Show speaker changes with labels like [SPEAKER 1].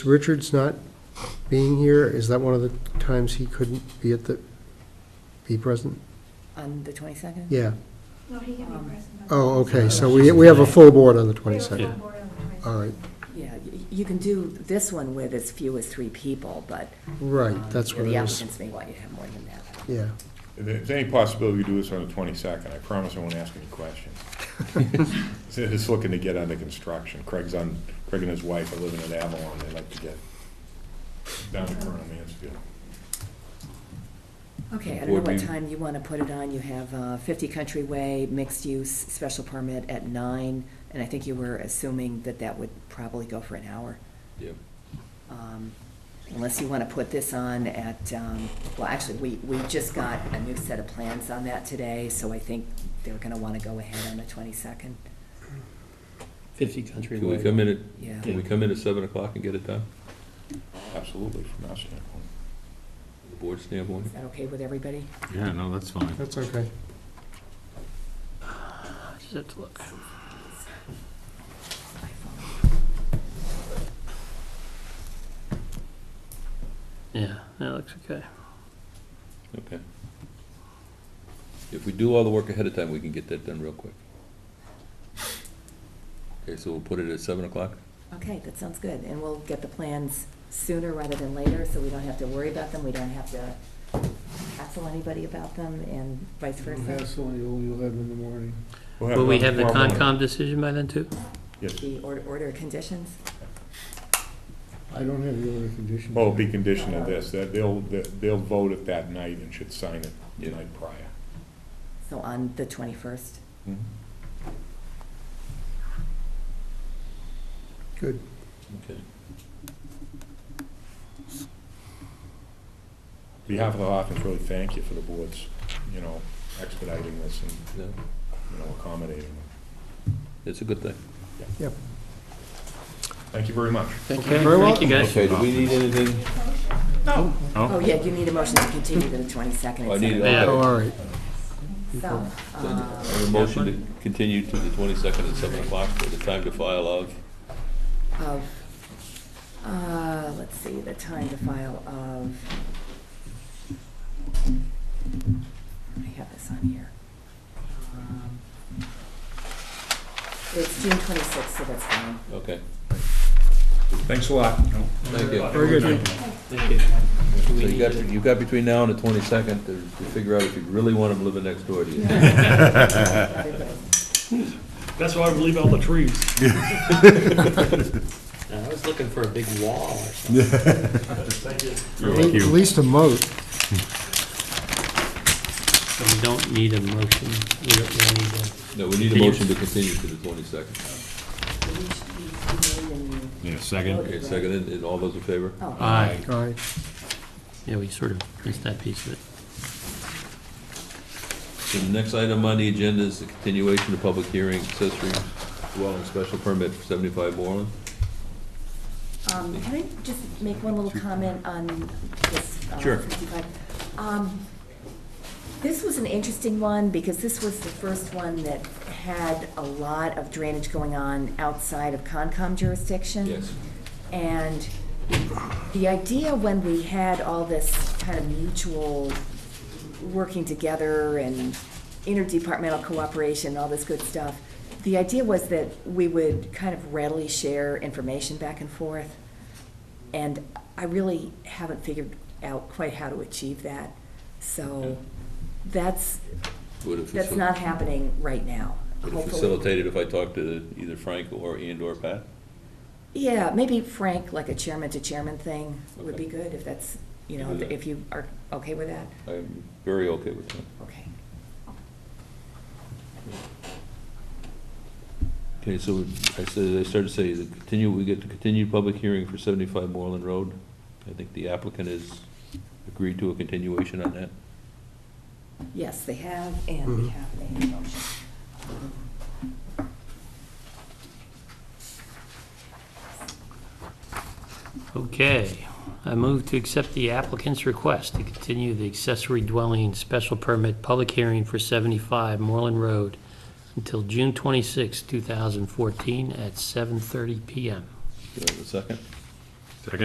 [SPEAKER 1] Richard's not being here, is that one of the times he couldn't be at the, be present?
[SPEAKER 2] On the 22nd?
[SPEAKER 1] Yeah,
[SPEAKER 3] No, he can
[SPEAKER 2] Um,
[SPEAKER 3] be present. but-
[SPEAKER 1] oh, okay, so we, we have a full board on the
[SPEAKER 3] We have a full
[SPEAKER 1] 22nd.
[SPEAKER 3] board on the 22nd.
[SPEAKER 1] All right,
[SPEAKER 2] Yeah, y- you can do this one with as few as three people, but. um,
[SPEAKER 1] right, that's
[SPEAKER 2] you
[SPEAKER 1] what
[SPEAKER 2] know,
[SPEAKER 1] it
[SPEAKER 2] The
[SPEAKER 1] is,
[SPEAKER 2] applicants may want you to have more than that.
[SPEAKER 1] yeah.
[SPEAKER 4] If there's any possibility we do this on the twenty-second, I promise I won't ask any questions. So Just looking to get under construction. Craig's on, Craig and his wife are living in Avalon. They like to get down to Colonel Mansfield.
[SPEAKER 2] Okay, I don't know
[SPEAKER 4] Board
[SPEAKER 2] what
[SPEAKER 4] meeting.
[SPEAKER 2] time you want to put it on. You have uh, 50 Country Way, mixed-use, special permit at nine, and I think you were assuming that that would probably go for an hour.
[SPEAKER 5] Yep.
[SPEAKER 2] Um, Unless you want to put this on at, um, well, actually, we, we just got a new set of plans on that today, so I think they're going to want to go ahead on the 22nd.
[SPEAKER 6] 50 country
[SPEAKER 5] Can we
[SPEAKER 6] way.
[SPEAKER 5] come in at,
[SPEAKER 2] Yeah.
[SPEAKER 5] can we come in at seven o'clock and get it done?
[SPEAKER 4] Absolutely, from our standpoint.
[SPEAKER 5] The board standpoint?
[SPEAKER 2] Is that okay with everybody?
[SPEAKER 7] Yeah, no, that's fine.
[SPEAKER 1] That's okay.
[SPEAKER 6] Just have to look. Yeah, that looks okay.
[SPEAKER 5] Okay. If we do all the work ahead of time, we can get that done real quick. Okay, so we'll put it at seven o'clock?
[SPEAKER 2] Okay, that sounds good, and we'll get the plans sooner rather than later, so we don't have to worry about them, we don't have to hassle anybody about them, and vice
[SPEAKER 1] Mm-hmm.
[SPEAKER 2] versa.
[SPEAKER 6] you'll have in the morning.
[SPEAKER 4] We'll
[SPEAKER 6] Will we
[SPEAKER 4] one
[SPEAKER 6] have the
[SPEAKER 4] tomorrow morning.
[SPEAKER 6] Concom decision by then too?
[SPEAKER 4] Yes.
[SPEAKER 2] The order, order of conditions,
[SPEAKER 6] I don't have the other conditions.
[SPEAKER 4] Well, it'll Oh, be conditioned on this, that they'll, they'll vote it that night and should sign it the
[SPEAKER 5] Yeah.
[SPEAKER 4] night prior.
[SPEAKER 2] so on the twenty-first.
[SPEAKER 5] Mm-hmm,
[SPEAKER 1] Good.
[SPEAKER 5] Okay.
[SPEAKER 4] On behalf of the Hoffmans, really thank you for the board's, you know, expediting this and,
[SPEAKER 5] Yeah,
[SPEAKER 4] you know, accommodating.
[SPEAKER 5] It's a good thing.
[SPEAKER 4] Thank you very much.
[SPEAKER 1] Thank
[SPEAKER 6] Okay, thank you guys.
[SPEAKER 5] do we need anything?
[SPEAKER 2] Oh, yeah, you need a motion to continue to the twenty-second.
[SPEAKER 5] I need,
[SPEAKER 6] Yeah.
[SPEAKER 1] Oh,
[SPEAKER 5] uh,
[SPEAKER 1] all right,
[SPEAKER 2] So,
[SPEAKER 5] I
[SPEAKER 2] um,
[SPEAKER 5] have a motion to continue to the twenty-second at seven o'clock for the time to file of,
[SPEAKER 2] of, uh, let's see, the time to file of, I have this on here. Um, It's June twenty-sixth, so that's fine.
[SPEAKER 5] okay.
[SPEAKER 4] Thanks a lot.
[SPEAKER 5] Thank you.
[SPEAKER 1] very good.
[SPEAKER 6] Thank you.
[SPEAKER 5] So you got, you got between now and the twenty-second to, to figure out if you really want them living next door to you.
[SPEAKER 8] That's why I leave out the trees.
[SPEAKER 6] I was looking for a big wall or something.
[SPEAKER 1] At least a moat.
[SPEAKER 6] So we don't need a motion. We don't we don't need a.
[SPEAKER 5] No, we need a motion to continue to the twenty-second.
[SPEAKER 7] Yeah, second.
[SPEAKER 5] Okay, seconded, and all those in favor?
[SPEAKER 2] Oh,
[SPEAKER 6] Aye.
[SPEAKER 1] All right,
[SPEAKER 6] Yeah, we sort of missed that piece of it.
[SPEAKER 5] So the next item on the agenda is the continuation of public hearing accessory dwelling special permit for seventy-five Moreland.
[SPEAKER 2] Um, Can I just make one little comment on this? uh,
[SPEAKER 5] Sure.
[SPEAKER 2] 55? Um, This was an interesting one, because this was the first one that had a lot of drainage going on outside of Concom jurisdiction.
[SPEAKER 5] Yes.
[SPEAKER 2] And the idea when we had all this kind of mutual working together and interdepartmental cooperation, and all this good stuff, the idea was that we would kind of readily share information back and forth. And I really haven't figured out quite how to achieve that. So that's,
[SPEAKER 5] Would have
[SPEAKER 2] that's
[SPEAKER 5] facil-
[SPEAKER 2] not happening right now.
[SPEAKER 5] Would have
[SPEAKER 2] Hopefully-
[SPEAKER 5] facilitated if I talked to either Frank or and or Pat?
[SPEAKER 2] Yeah, maybe Frank, like a chairman to chairman thing would be
[SPEAKER 5] Okay.
[SPEAKER 2] good if that's, you know,
[SPEAKER 5] Can do that.
[SPEAKER 2] if you are okay with that.
[SPEAKER 5] I'm very okay with that.
[SPEAKER 2] Okay.
[SPEAKER 5] Okay, so I said, I started to say, the continue, we get the continued public hearing for seventy-five Moreland Road. I think the applicant has agreed to a continuation on that.
[SPEAKER 2] Yes, they have, and we
[SPEAKER 1] Mhm.
[SPEAKER 2] have made a motion.
[SPEAKER 6] Okay, I move to accept the applicant's request to continue the accessory dwelling special permit public hearing for 75 Moreland Road until June 26, 2014 at 7:30 PM.
[SPEAKER 5] Do I have a second?